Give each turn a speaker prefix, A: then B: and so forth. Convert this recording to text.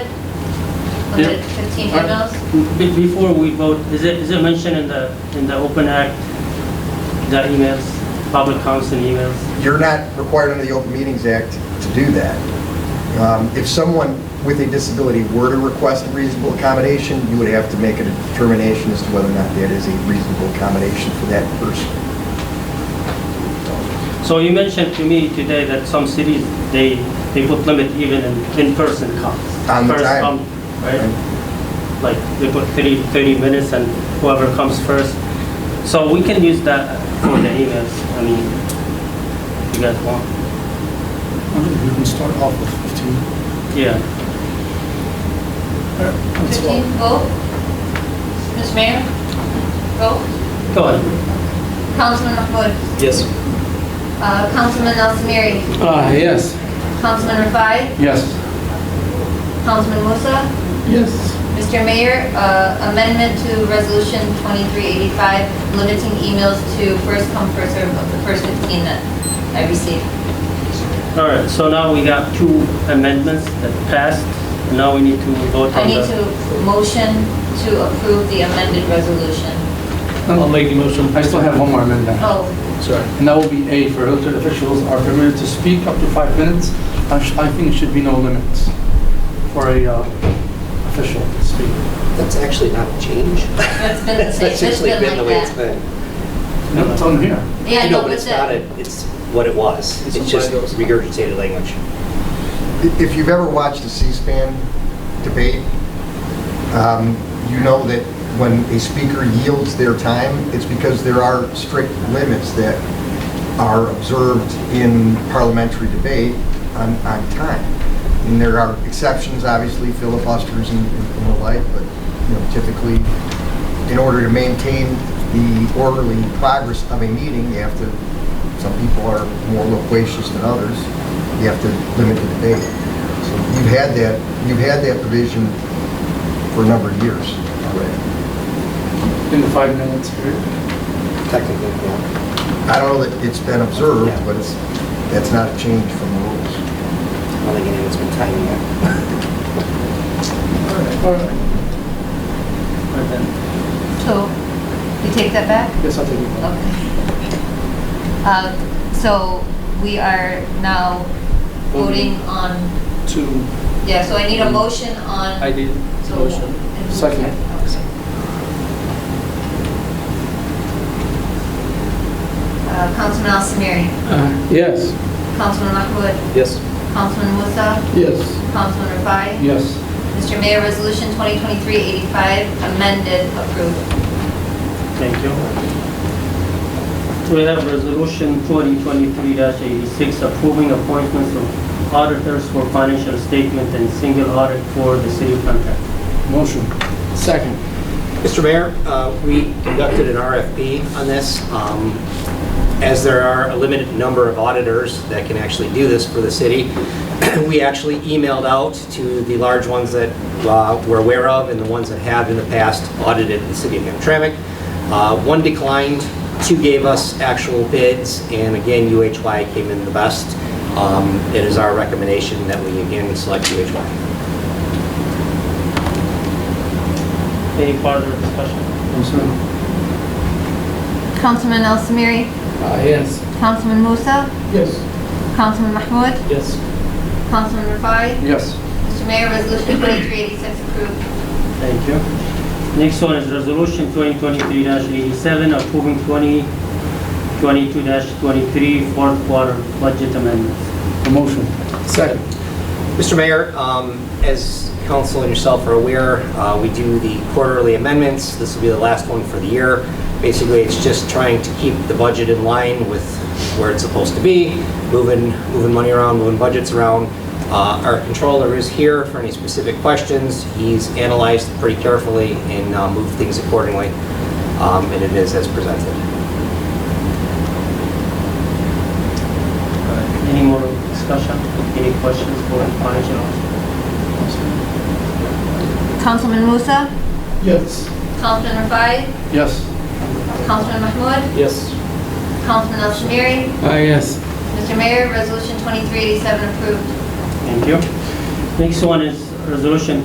A: 100, 15 emails?
B: Be- Before we vote, is it, is it mentioned in the, in the Open Act, the emails, public council emails?
C: You're not required under the Open Meetings Act to do that. Um, If someone with a disability were to request a reasonable accommodation, you would have to make a determination as to whether or not that is a reasonable accommodation for that person.
B: So you mentioned to me today that some cities, they, they put limit even in, in-person comes.
C: On the
B: First
C: time.
B: come, Right? Like, they put 30, 30 minutes and whoever comes first. So we can use that for the emails, I mean, if you guys want,
D: We can start off with 15.
B: yeah.
D: That's
A: 15,
D: all.
A: vote. Mr. Mayor? Vote.
B: Go ahead.
A: Councilman Mahmoud?
E: Yes.
A: Uh, Councilman Al Samiri?
E: Ah, yes.
A: Councilman Rafai?
E: Yes.
A: Councilman Musa?
E: Yes.
A: Mr. Mayor, uh, amendment to Resolution 2385, limiting emails to first come, first served of the first 15 that I received.
B: All right, so now we got two amendments that passed, now we need to vote
A: I
B: on
A: need
B: the...
A: to motion to approve the amended resolution.
E: I'll make the motion. Um, I still have one more amendment.
A: Oh,
E: Sorry. And that will be A, for elected officials are permitted to speak up to five minutes. I sh- I think it should be no limits for a uh, official to speak.
F: That's actually not a change.
A: it's been the
F: That's
A: same, it's
F: actually been the way it's
A: like that.
F: been.
E: No, it's on here.
A: Yeah,
F: I know, but it's
A: that-
F: not a, it's what it was.
E: It's
F: It's just
E: what it was.
F: regurgitated language.
C: If you've ever watched a C-SPAN debate, um, you know that when a speaker yields their time, it's because there are strict limits that are observed in parliamentary debate on, on time. And there are exceptions, obviously, filibusters and and the like, but, you know, typically, in order to maintain the orderly progress of a meeting, you have to, some people are more loquacious than others, you have to limit the debate. So you've had that, you've had that provision for a number of years already.
E: In the five minutes period.
F: Technically, yeah.
C: I don't know that it's been observed, but it's, that's not a change from the rules.
F: I don't think anyone's been timing it.
E: All right.
B: Right then.
A: So, you take that back?
E: Yes, I'll take it. back.
A: Okay. Uh, So, we are now voting on,
E: Two.
A: yeah, so I need a motion on.
E: Mm. I did.
A: So-
E: Motion. Second.
A: Uh, Councilman Al Samiri,
E: Yes.
A: Councilman Mahmoud,
F: Yes.
A: Councilman Musa,
E: Yes.
A: Councilman Rafai.
E: Yes.
A: Mr. Mayor, Resolution 2023-85 amended, approved.
B: Thank you. We have Resolution 2023-86 approving appointments of auditors for financial statement and single audit for the city contract.
E: Motion. Second.
F: Mr. Mayor, uh, we conducted an RFP on this. Um, As there are a limited number of auditors that can actually do this for the city, we actually emailed out to the large ones that uh, we're aware of and the ones that have in the past audited the city of Hamtramck. Uh, One declined, two gave us actual bids, and again, UHY came in the best. Um, It is our recommendation that we again select UHY.
B: Any further discussion?
E: Motion.
A: Councilman Al Samiri,
E: Ah, yes.
A: Councilman Musa,
E: Yes.
A: Councilman Mahmoud,
E: Yes.
A: Councilman Rafai.
E: Yes.
A: Mr. Mayor, Resolution 2386 approved.
B: Thank you. Next one is Resolution 2023-87 approving 2022-23 fourth quarter budget amendments.
E: Motion. Second.
F: Mr. Mayor, um, as council and yourself are aware, uh, we do the quarterly amendments. This will be the last one for the year. Basically, it's just trying to keep the budget in line with where it's supposed to be, moving, moving money around, moving budgets around. Uh, Our controller is here for any specific questions. He's analyzed pretty carefully and uh, moved things accordingly, Um, and it is as presented.
B: Any more discussion? Any questions for the financial officer?
A: Councilman Musa,
E: Yes.
A: Councilman Rafai,
E: Yes.
A: Councilman Mahmoud,
E: Yes.
A: Councilman Al Samiri.
E: Ah, yes.
A: Mr. Mayor, Resolution 2387 approved.
B: Thank you. Next one is Resolution